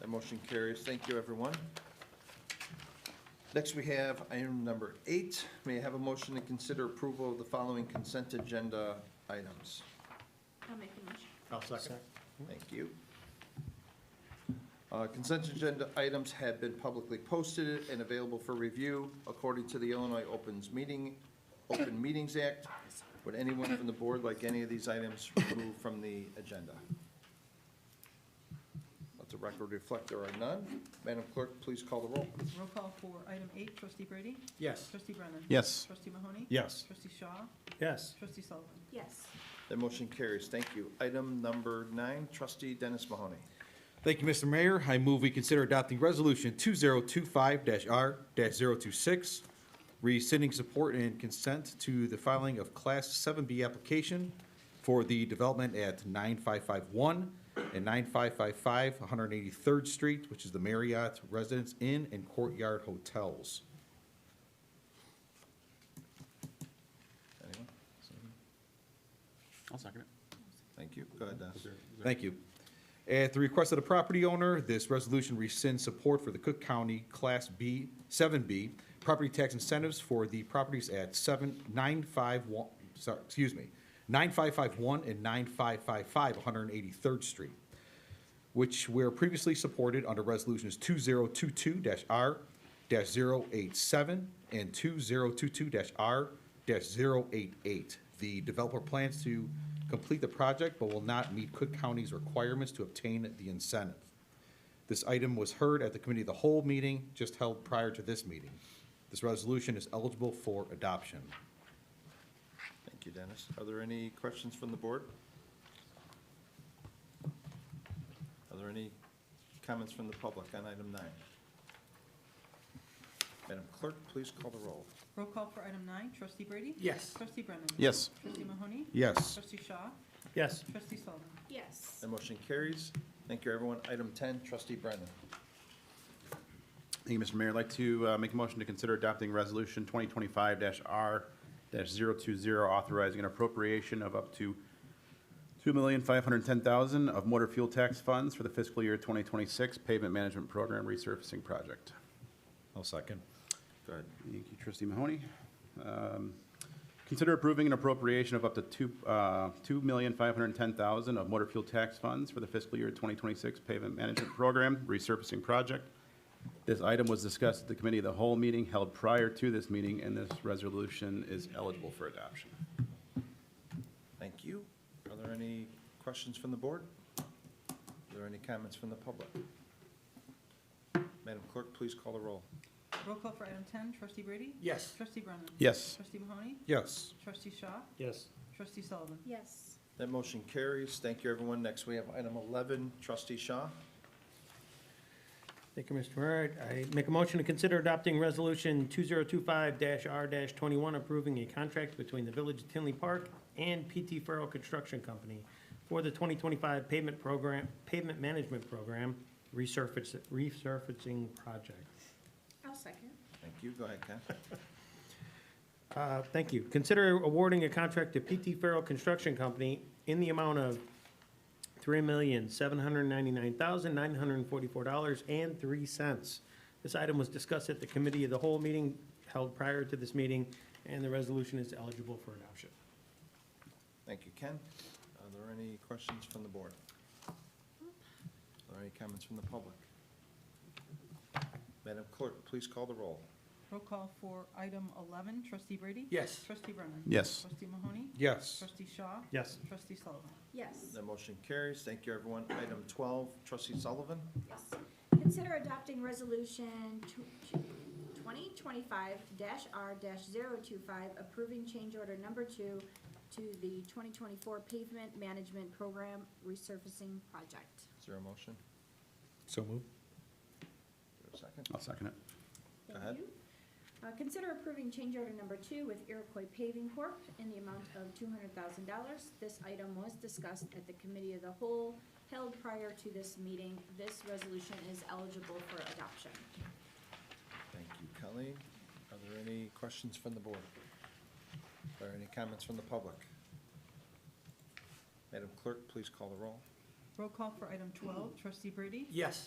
That motion carries. Thank you, everyone. Next, we have item number eight. May I have a motion to consider approval of the following consent agenda items? I'll make the motion. I'll second. Thank you. Uh, Consent agenda items have been publicly posted and available for review according to the Illinois Opens Meeting, Open Meetings Act. Would anyone from the board like any of these items removed from the agenda? Let the record reflect there are none. Madam Clerk, please call the roll. Roll call for item eight, trustee Brady? Yes. Trustee Brennan? Yes. Trustee Mahoney? Yes. Trustee Shaw? Yes. Trustee Sullivan? Yes. That motion carries. Thank you. Item number nine, trustee Dennis Mahoney. Thank you, Mr. Mayor. I move we consider adopting Resolution 2025-R-026, rescinding support and consent to the filing of Class 7B application for the development at 9551 and 9555 183rd Street, which is the Marriott Residence Inn and Courtyard Hotels. Anyone? I'll second it. Thank you. Go ahead, Dennis. Thank you. At the request of the property owner, this resolution rescinds support for the Cook County Class B, 7B property tax incentives for the properties at 7, 951, sorry, excuse me, 9551 and 9555 183rd Street, which were previously supported under Resolutions 2022-R-087 and 2022-R-088. The developer plans to complete the project but will not meet Cook County's requirements to obtain the incentive. This item was heard at the Committee of the Whole meeting just held prior to this meeting. This resolution is eligible for adoption. Thank you, Dennis. Are there any questions from the board? Are there any comments from the public on item nine? Madam Clerk, please call the roll. Roll call for item nine, trustee Brady? Yes. Trustee Brennan? Yes. Trustee Mahoney? Yes. Trustee Shaw? Yes. Trustee Sullivan? Yes. The motion carries. Thank you, everyone. Item 10, trustee Brennan. Thank you, Mr. Mayor. I'd like to uh, make a motion to consider adopting Resolution 2025-R-020, authorizing an appropriation of up to $2,510,000 of motor fuel tax funds for the fiscal year 2026 pavement management program resurfacing project. I'll second. Go ahead. Thank you, trustee Mahoney. Um, Consider approving an appropriation of up to two, uh, two million five hundred and ten thousand of motor fuel tax funds for the fiscal year twenty twenty-six pavement management program resurfacing project. This item was discussed at the committee of the whole meeting held prior to this meeting, and this resolution is eligible for adoption. Thank you. Are there any questions from the board? Are there any comments from the public? Madam Clerk, please call the roll. Roll call for item ten, trustee Brady? Yes. Trustee Brennan? Yes. Trustee Mahoney? Yes. Trustee Shaw? Yes. Trustee Sullivan? Yes. That motion carries. Thank you, everyone. Next, we have item 11, trustee Shaw. Thank you, Mr. Mayor. I make a motion to consider adopting Resolution 2025-R-21, approving a contract between the Village of Tinley Park and PT Farrell Construction Company for the 2025 pavement program, pavement management program resurface- resurfacing project. I'll second. Thank you. Go ahead, Ken. Uh, Thank you. Consider awarding a contract to PT Farrell Construction Company in the amount of three million, seven hundred ninety-nine thousand, nine hundred and forty-four dollars and three cents. This item was discussed at the committee of the whole meeting held prior to this meeting, and the resolution is eligible for adoption. Thank you, Ken. Are there any questions from the board? Are there any comments from the public? Madam Clerk, please call the roll. Roll call for item eleven, trustee Brady? Yes. Trustee Brennan? Yes. Trustee Mahoney? Yes. Trustee Shaw? Yes. Trustee Sullivan? Yes. The motion carries. Thank you, everyone. Item 12, trustee Sullivan. Yes. Consider adopting resolution twenty twenty-five R 25 approving change order number two to the twenty twenty-four pavement management program resurfacing project. Is there a motion? So moved. Is there a second? I'll second it. Go Thank ahead. you. Uh, Consider approving change order number two with Iroquois Paving Corp. in the amount of two hundred thousand dollars. This item was discussed at the committee of the whole held prior to this meeting. This resolution is eligible for adoption. Thank you, Kelly. Are there any questions from the board? Are there any comments from the public? Madam Clerk, please call the roll. Roll call for item twelve, trustee Brady? Yes.